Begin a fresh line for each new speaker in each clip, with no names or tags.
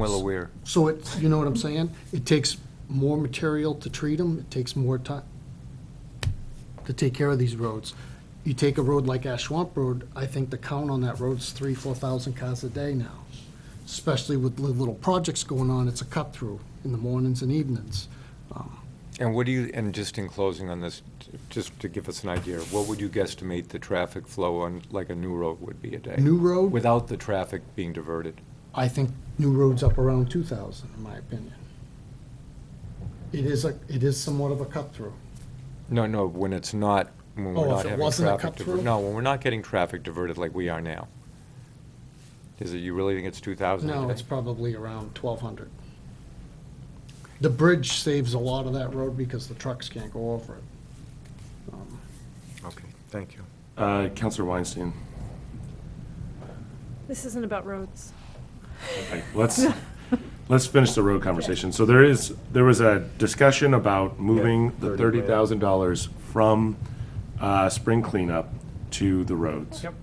Well aware.
So it's, you know what I'm saying? It takes more material to treat them, it takes more time to take care of these roads. You take a road like Ash Swamp Road, I think the count on that road's three, four thousand cars a day now. Especially with li- little projects going on, it's a cut-through in the mornings and evenings.
And what do you, and just in closing on this, t- just to give us an idea, what would you guesstimate the traffic flow on, like a new road would be a day?
New road,
Without the traffic being diverted?
I think new road's up around two thousand, in my opinion. It is a, it is somewhat of a cut-through.
No, no, when it's not, when
Oh,
we're
if
not
it
having
wasn't a
traffic
cut-through?
diverted. No, when we're not getting traffic diverted like we are now. Is it, you really think it's 2,000 a
No,
day?
it's probably around twelve hundred. The bridge saves a lot of that road because the trucks can't go over it.
Okay, thank you.
Uh, Counselor Weinstein.
This isn't about roads.
Okay, Let's, let's finish the road conversation. So there is, there was a discussion about moving the
$30,000.
$30,000 from uh, spring cleanup to the roads. Yep.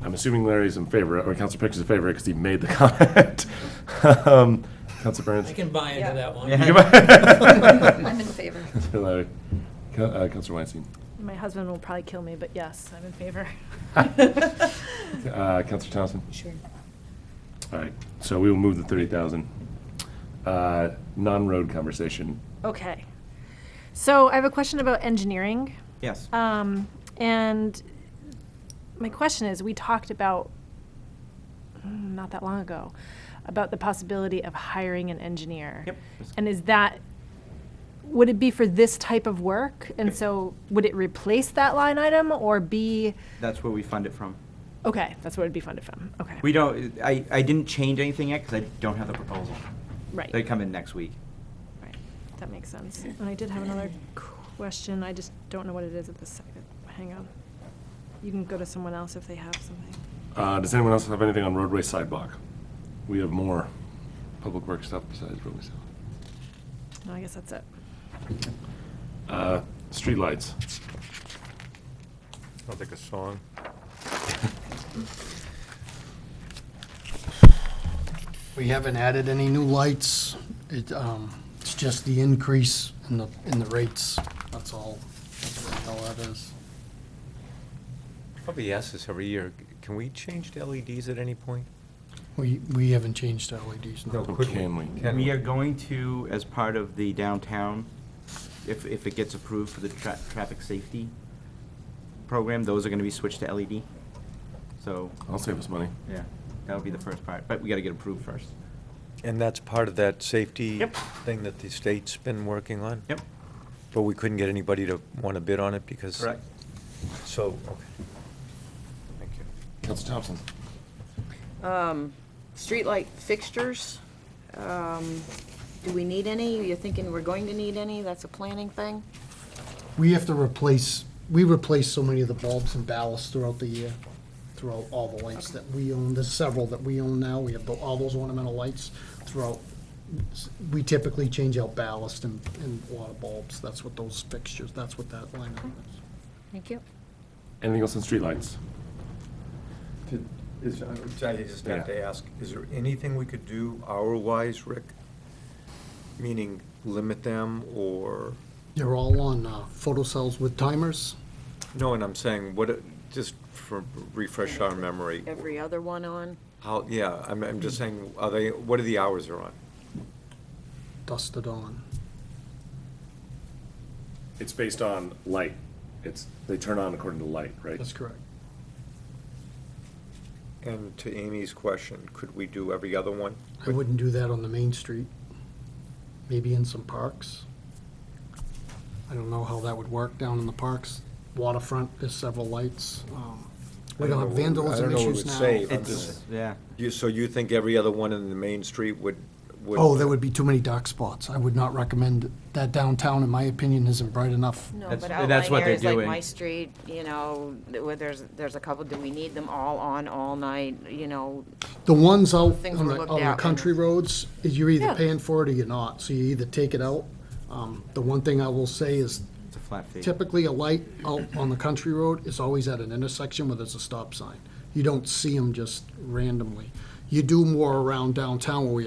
I'm assuming Larry's in favor, or Counselor Pickett's in favor, because he made the comment. Um, Counselor Burns?
I can buy into
Yeah.
that one.
I'm in favor.
Larry. Co- uh, Counselor Weinstein.
My husband will probably kill me, but yes, I'm in favor.
Uh, Counselor Thompson?
Sure.
All right, so we will move the 30,000. Uh, Non-road conversation.
Okay. So I have a question about engineering.
Yes.
Um, and my question is, we talked about, mm, not that long ago, about the possibility of hiring an engineer.
Yep.
And is that, would it be for this type of work? And so would it replace that line item or be,
That's where we fund it from.
okay, that's what it'd be funded from, okay.
We don't, I, I didn't change anything yet because I don't have the proposal.
Right.
They come in next week.
Right, that makes sense. And I did have another question, I just don't know what it is at this second. Hang on. You can go to someone else if they have something.
Uh, Does anyone else have anything on roadway sidewalk? We have more public work stuff besides roadway sidewalk.
No, I guess that's it.
Uh, Streetlights.
Sounds like a song.
We haven't added any new lights, it, um, it's just the increase in the, in the rates, that's all, that's all that is.
Probably ask this every year, c- can we change to LEDs at any point?
We, we haven't changed our LEDs, no.
could we?
Can we?
Can
We are going to, as part of the downtown, if, if it gets approved for the tra- traffic safety program, those are going to be switched to LED. So,
I'll save us money.
yeah, that'll be the first part, but we got to get approved first.
And that's part of that safety
Yep.
thing that the state's been working on?
Yep.
But we couldn't get anybody to want to bid on it because.
Correct.
So, okay. Thank you.
Counselor Thompson.
Um, Streetlight fixtures, um, do we need any? You're thinking we're going to need any? That's a planning thing?
We have to replace, we replace so many of the bulbs and ballasts throughout the year, throughout all the lights that we own. There's several that we own now. We have the- all those ornamental lights throughout. We typically change out ballast and, and a lot of bulbs. That's what those fixtures, that's what that line item is.
Thank you.
Anything else on streetlights?
Did- Is, I would- I just have to
Yeah.
ask, is there anything we could do hour-wise, Rick? Meaning limit them or,
They're all on uh, photocells with timers.
no, and I'm saying, what, it- just for refresh our memory.
Every other one on?
How, yeah, I'm, I'm just saying, are they, what are the hours they're on?
dusted on.
It's based on light. It's, they turn on according to light, right?
That's correct.
And to Amy's question, could we do every other one?
I wouldn't do that on the main street. Maybe in some parks. I don't know how that would work down in the parks. Waterfront, there's several lights. Um, We
I
don't
don't
have
know what- I don't
vandalism
know what it
issues
would
now.
save.
It's, yeah.
You, so you think every other one in the main street would? would-
Oh, there would be too many dark spots. I would not recommend it. that downtown, in my opinion, isn't bright enough.
No,
That's-
but
that's
outlying
what they're
areas like
doing.
my street, you know, th- where there's, there's a couple, do we need them all on all night, you know?
The ones out
Things
on
were
the,
looked
on the
at.
country roads, is you're either
Yeah.
paying for it or you're not. So you either take it out. Um, The one thing I will say is
It's a flat fee.
Typically, a light out on the country road is always at an intersection where there's a stop sign. You don't see them just randomly. You do more around downtown where we have